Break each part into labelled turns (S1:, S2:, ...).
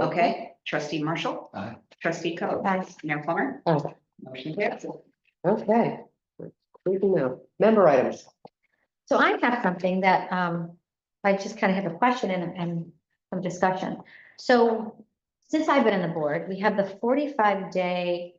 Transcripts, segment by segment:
S1: Okay, trustee Marshall.
S2: Aye.
S1: Trustee Coe.
S3: Aye.
S1: Mayor Plummer.
S3: Aye.
S1: Motion carries.
S3: Okay. Creeping out. Member items.
S4: So I have something that, um, I just kind of have a question and, and some discussion. So since I've been on the board, we have the forty-five day,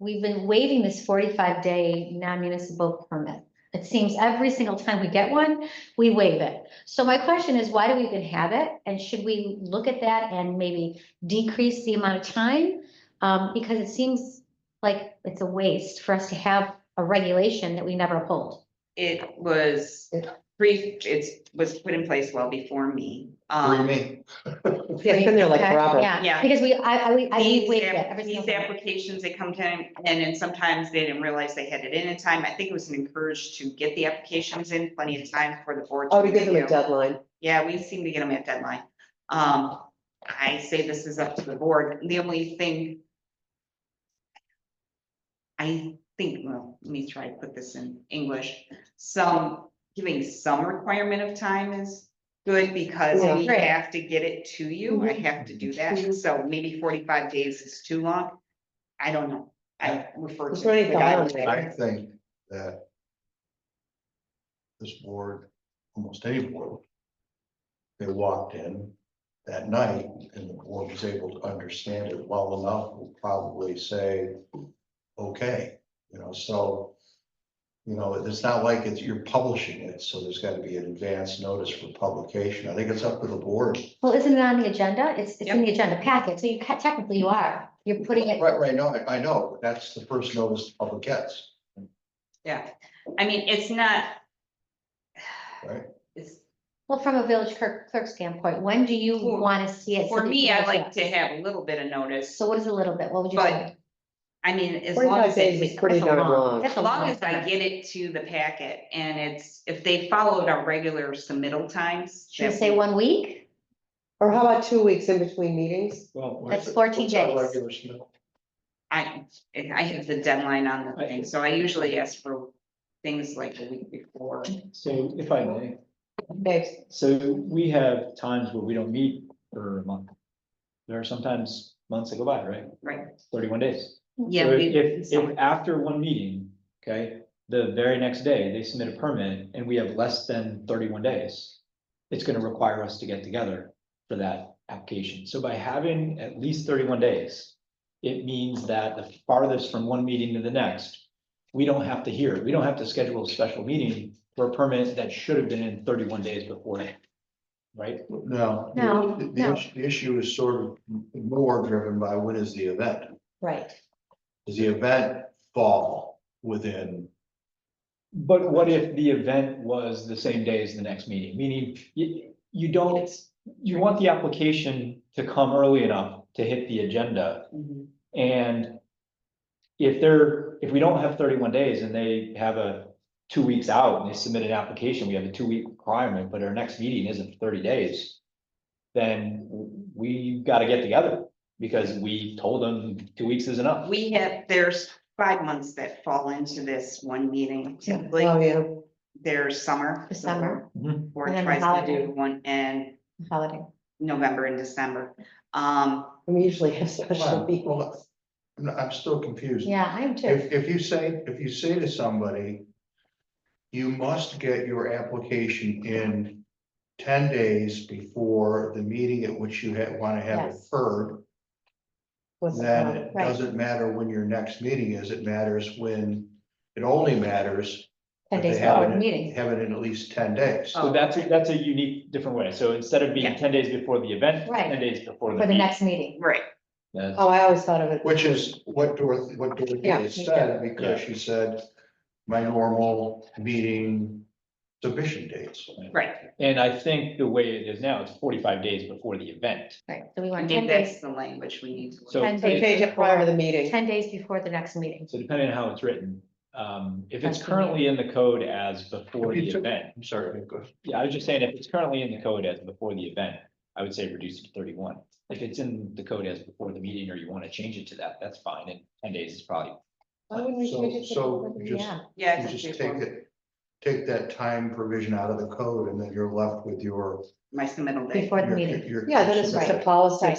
S4: we've been waiving this forty-five day non-municipal permit. It seems every single time we get one, we waive it. So my question is, why do we even have it? And should we look at that and maybe decrease the amount of time? Um, because it seems like it's a waste for us to have a regulation that we never uphold.
S1: It was brief, it's was put in place well before me.
S2: Believe
S1: Um,
S2: me,
S3: It's been there like
S4: Okay,
S3: forever.
S4: Yeah,
S1: Yeah.
S4: because we, I, I, we- I
S1: These
S4: waived it
S1: app-
S4: every
S1: these
S4: single time.
S1: applications, they come to, and then sometimes they didn't realize they had it in in time. I think it was encouraged to get the applications in plenty of time for the board. to
S3: Oh, we give them a
S1: review.
S3: deadline.
S1: Yeah, we seem to get them at deadline. Um, I say this is up to the board. The only thing. I think, well, let me try to put this in English. Some, giving some requirement of time is good because we
S4: Yeah. Right. Mm-hmm.
S1: have to get it to you. I have to do that.
S3: Mhm.
S1: So maybe forty-five days is too long. I don't know. I refer to.
S3: It's already
S1: the
S3: gone on
S1: guidelines.
S3: there.
S2: I think that. This board, almost any board. They walked in that night and the board was able to understand it well enough, will probably say, okay, you know, so. You know, it's not like it's, you're publishing it, so there's gotta be an advance notice for publication. I think it's up to the board.
S4: Well, isn't it on the agenda? It's, it's in the agenda packet, so you ca- technically you are, you're putting it,
S2: Right, right, no, I, I know, but that's the first notice the public gets.
S1: Yeah, I mean, it's not.
S2: Right.
S1: It's,
S4: well, from a village clerk, clerk standpoint, when do you
S1: For-
S4: want to see it? so
S1: For
S4: that
S1: me,
S4: you
S1: I
S4: know
S1: like
S4: that?
S1: to have a little bit of notice,
S4: So what is a little bit? What would you
S1: But
S4: say?
S1: I mean, as long
S3: 45
S1: as,
S3: days
S1: it-
S3: is pretty
S4: That's a
S3: darn
S4: long-
S3: long.
S4: that's
S1: as
S4: a
S1: long
S4: long
S1: as I
S4: time.
S1: get it to the packet and it's, if they followed our regular submittal times.
S4: Should we
S1: that
S4: say
S1: we-
S4: one week?
S3: Or how about two weeks in between meetings?
S2: Well.
S4: That's 14
S2: what's our
S4: days.
S2: regular smell?
S1: I, I have the deadline on the thing, so I usually ask for things like a week before.
S5: So if I may,
S3: Babes,
S5: so we have times where we don't meet for a month. There are sometimes months that go by, right?
S1: Right.
S5: Thirty-one days.
S1: Yeah.
S5: So
S1: we-
S5: If,
S1: so-
S5: if after one meeting, okay, the very next day, they submit a permit and we have less than thirty-one days. It's gonna require us to get together for that application. So by having at least thirty-one days. It means that the farthest from one meeting to the next, we don't have to hear, it. we don't have to schedule a special meeting for a permit that should have been in thirty-one days before. that, Right?
S2: No.
S4: No,
S2: The- the
S4: no.
S2: issue- The issue is sort of more driven by when is the event?
S4: Right,
S2: Does the event fall within?
S5: But what if the event was the same day as the next meeting, meaning you, you don't, you want the application to come early enough to hit the agenda
S1: Mhm.
S5: and. If they're, if we don't have thirty-one days and they have a two weeks out and they submit an application, we have a two-week requirement, but our next meeting isn't thirty days. Then we gotta get together because we told them two weeks is enough.
S1: We have, there's five months that fall into this one meeting typically,
S3: oh, yeah.
S1: there's summer.
S4: The summer.
S5: Mhm.
S1: Board
S4: And then the
S1: tries to do
S4: holiday.
S1: one and
S4: holiday.
S1: November and December. Um,
S3: We usually have special meetings.
S2: Well, I'm I'm still confused.
S4: Yeah, I am too.
S2: If, if you say, if you say to somebody, you must get your application in ten days before the meeting at which you had, want to have it
S4: Yes.
S2: heard,
S3: What's the
S2: then
S3: problem?
S2: it
S4: Right.
S2: doesn't matter when your next meeting is, it matters when, it only matters
S4: Ten
S2: if they
S4: days
S2: have
S4: before
S2: it
S4: the
S2: in-
S4: meeting.
S2: Have it in at least ten days.
S1: Oh.
S5: So that's, a- that's a unique, different way. So instead of being
S1: Yeah.
S5: ten days before the event,
S4: Right.
S5: ten days before the.
S4: For the
S5: meet-
S4: next meeting.
S1: right,
S5: That's-
S3: Oh, I always thought of it.
S2: Which is what Dorothy, what Dorothy
S3: Yeah,
S2: had
S3: me
S2: said,
S3: too.
S2: because she said, my normal meeting submission dates.
S1: right.
S5: And I think the way it is now, it's forty-five days before the event.
S4: Right, so we
S1: I
S4: want ten
S1: think
S4: days,
S1: that's the language we need to. look
S5: So
S1: at.
S4: Ten
S3: So change it prior to the meeting.
S4: ten days before the next meeting.
S5: So depending on how it's written, um, if
S4: That's
S5: it's
S4: the
S5: currently in the code as before
S2: If you
S5: the
S2: took-
S5: event.
S2: I'm sorry, Nick, go ahead.
S5: Yeah, I was just saying, if it's currently in the code as before the event, I would say reduce it to thirty-one. If it's in the code as before the meeting or you want to change it to that, that's fine. And ten days is probably,
S3: Why wouldn't we
S2: So-
S3: change it to-
S2: so just,
S4: Yeah,
S1: Yeah. I
S2: you
S1: think
S2: just
S1: we
S2: take
S1: will.
S2: it, take that time provision out of the code and then you're left with your.
S1: My submittal date.
S4: before the
S2: your-
S4: meeting.
S2: your-
S3: Yeah, then it's just a policy.